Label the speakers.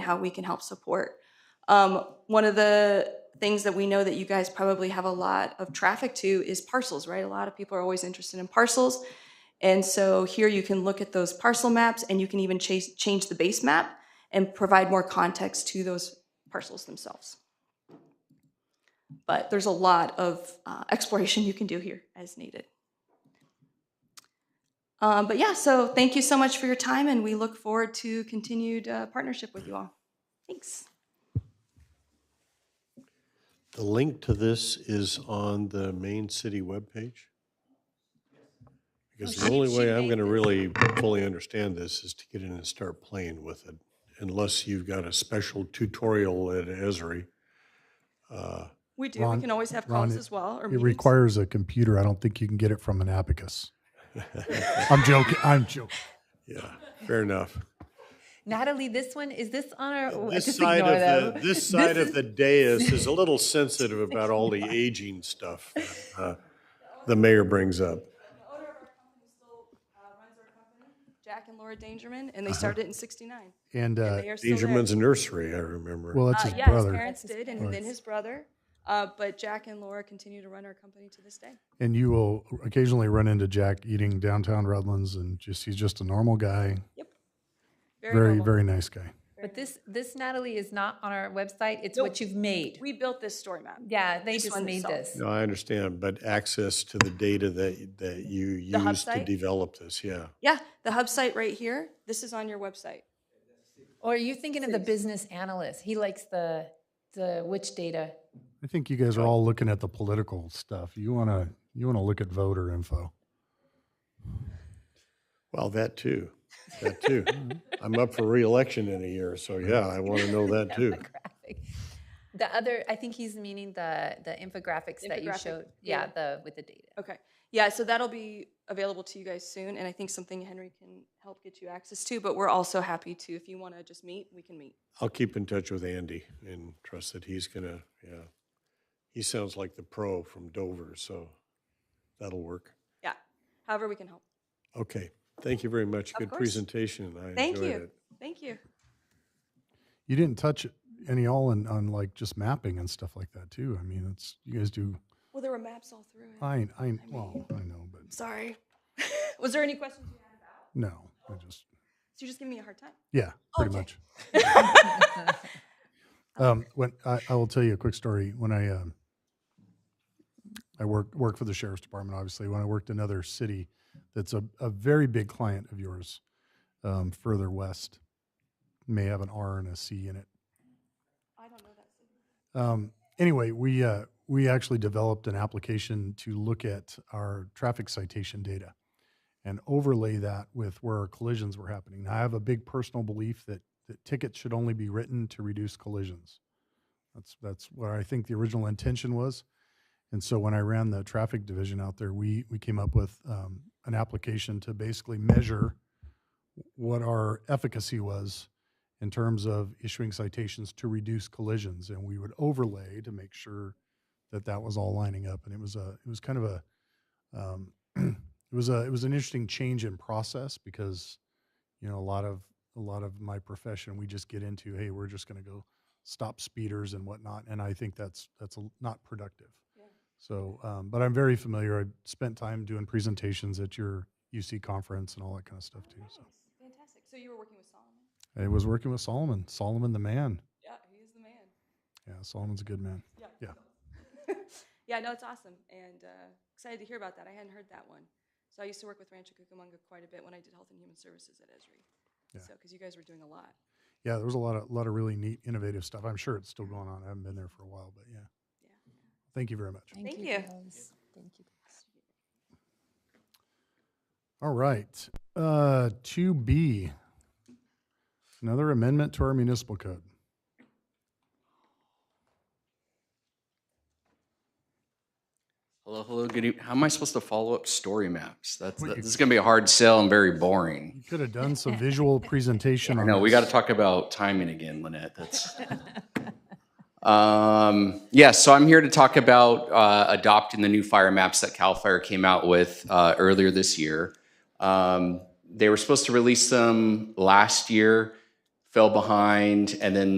Speaker 1: how we can help support. Um, one of the things that we know that you guys probably have a lot of traffic to is parcels, right? A lot of people are always interested in parcels. And so here you can look at those parcel maps and you can even chase, change the base map and provide more context to those parcels themselves. But there's a lot of uh, exploration you can do here as needed. Um, but yeah, so thank you so much for your time and we look forward to continued uh, partnership with you all. Thanks.
Speaker 2: The link to this is on the main city webpage. Because the only way I'm going to really fully understand this is to get in and start playing with it, unless you've got a special tutorial at Esri. Uh,
Speaker 1: We do.
Speaker 3: Ron-
Speaker 1: we can always have
Speaker 3: Ron,
Speaker 1: calls
Speaker 3: it-
Speaker 1: as well. Or
Speaker 3: It
Speaker 1: meetings.
Speaker 3: requires a computer. I don't think you can get it from an abacus. I'm joking. I'm joking.
Speaker 2: Yeah, fair enough.
Speaker 4: Natalie, this one, is this on our,
Speaker 2: This
Speaker 4: just
Speaker 2: side
Speaker 4: ignore
Speaker 2: of the,
Speaker 4: them.
Speaker 2: this side of the dais is a little sensitive about all the aging stuff that, uh, the mayor brings up.
Speaker 1: uh, Jack and Laura Dangerman, and they started in '69.
Speaker 3: And Uh-huh. uh,
Speaker 1: They are still there.
Speaker 2: Dangerman's Nursery, I remember.
Speaker 3: well, that's
Speaker 1: Uh,
Speaker 3: his
Speaker 1: yeah, his
Speaker 3: brother.
Speaker 1: parents did, and then his brother. Uh, but Jack and Laura continue to run our company to this day.
Speaker 3: And you will occasionally run into Jack eating downtown Redlands, and just he's just a normal guy.
Speaker 1: Very,
Speaker 3: Very
Speaker 1: noble.
Speaker 3: very nice guy.
Speaker 4: But this, this Natalie is not on our website, it's what you've made.
Speaker 1: We built this story map.
Speaker 4: Yeah, they
Speaker 1: This
Speaker 4: just
Speaker 1: one
Speaker 4: made
Speaker 1: itself.
Speaker 4: this.
Speaker 2: No, I understand, but access to the data that, that you
Speaker 1: The hub
Speaker 2: use to
Speaker 1: site?
Speaker 2: develop this, yeah.
Speaker 1: Yeah, the hub site right here. This is on your website.
Speaker 4: Or are you thinking of the business analyst? He likes the, the which data?
Speaker 3: I think you guys are all looking at the political stuff. You wanna you wanna look at voter info.
Speaker 2: Well, that too, that too. I'm up for reelection in a year, so yeah, I want to know that too.
Speaker 4: graphic. The other, I think he's meaning the, the infographics that you
Speaker 1: Infographic,
Speaker 4: showed.
Speaker 1: yeah.
Speaker 4: Yeah, the, with the data.
Speaker 1: Okay. Yeah, so that'll be available to you guys soon, and I think something Henry can help get you access to. But we're also happy to, if you want to just meet, we can meet.
Speaker 2: I'll keep in touch with Andy and trust that he's gonna, yeah. He sounds like the pro from Dover, so that'll work.
Speaker 1: Yeah. However, we can help.
Speaker 2: Okay, thank you very much. Good
Speaker 1: course.
Speaker 2: presentation. I
Speaker 1: Thank
Speaker 2: enjoyed
Speaker 1: you.
Speaker 2: it.
Speaker 1: Thank you.
Speaker 3: You didn't touch any all on, on like just mapping and stuff like that too. I mean, it's you guys do.
Speaker 1: Well, there were maps all through it.
Speaker 3: I I well I know, but
Speaker 1: Sorry. Was there any questions you had?
Speaker 3: no, I just
Speaker 1: So you're just giving me a hard time.
Speaker 3: Yeah, pretty
Speaker 1: Okay.
Speaker 3: much. um, when I, I will tell you a quick story. When I um, I worked worked for the sheriff's department, obviously. When I worked in another city, that's a, a very big client of yours, um, further west, may have an R and a C in it.
Speaker 1: I don't know that.
Speaker 3: Um, anyway, we uh, we actually developed an application to look at our traffic citation data and overlay that with where our collisions were happening. Now, I have a big personal belief that that tickets should only be written to reduce collisions. That's that's what I think the original intention was. And so when I ran the traffic division out there, we we came up with um, an application to basically measure what our efficacy was in terms of issuing citations to reduce collisions and we would overlay to make sure that that was all lining up and it was a it was kind of a um, it was a it was an interesting change in process because you know a lot of a lot of my profession we just get into hey we're just going to go stop speeders and whatnot and i think that's that's a, not productive
Speaker 1: Yeah.
Speaker 3: so um, but i'm very familiar i spent time doing presentations at your uc conference and all that kind of stuff too so
Speaker 1: Fantastic. So you were working with Solomon?
Speaker 3: I was working with Solomon, Solomon the man.
Speaker 1: Yeah, he is the man.
Speaker 3: Yeah, Solomon's a good man. Yeah.
Speaker 1: yeah, no, it's awesome. And uh, excited to hear about that. I hadn't heard that one. So I used to work with Rancho Cucamonga quite a bit when I did Health and Human Services at Esri.
Speaker 3: Yeah.
Speaker 1: So, because you guys were doing a lot.
Speaker 3: Yeah, there was a lot of lot of really neat, innovative stuff. I'm sure it's still going on. I haven't been there for a while, but yeah.
Speaker 1: Yeah.
Speaker 3: Thank you very much.
Speaker 1: Thank you.
Speaker 4: guys. Thank you.
Speaker 3: All right. Uh, two B. Another amendment to our municipal code.
Speaker 5: Hello, hello, good evening. How am I supposed to follow up story maps? That's,
Speaker 3: Well,
Speaker 5: that-
Speaker 3: you-
Speaker 5: this is gonna be a hard sell and very boring.
Speaker 3: You could have done some visual presentation.
Speaker 5: I
Speaker 3: on
Speaker 5: know, we
Speaker 3: this.
Speaker 5: gotta talk about timing again, Lynette, that's. Um, yeah, so I'm here to talk about, uh, adopting the new fire maps that CAL FIRE came out with, uh, earlier this year. Um, they were supposed to release them last year. fell behind, and then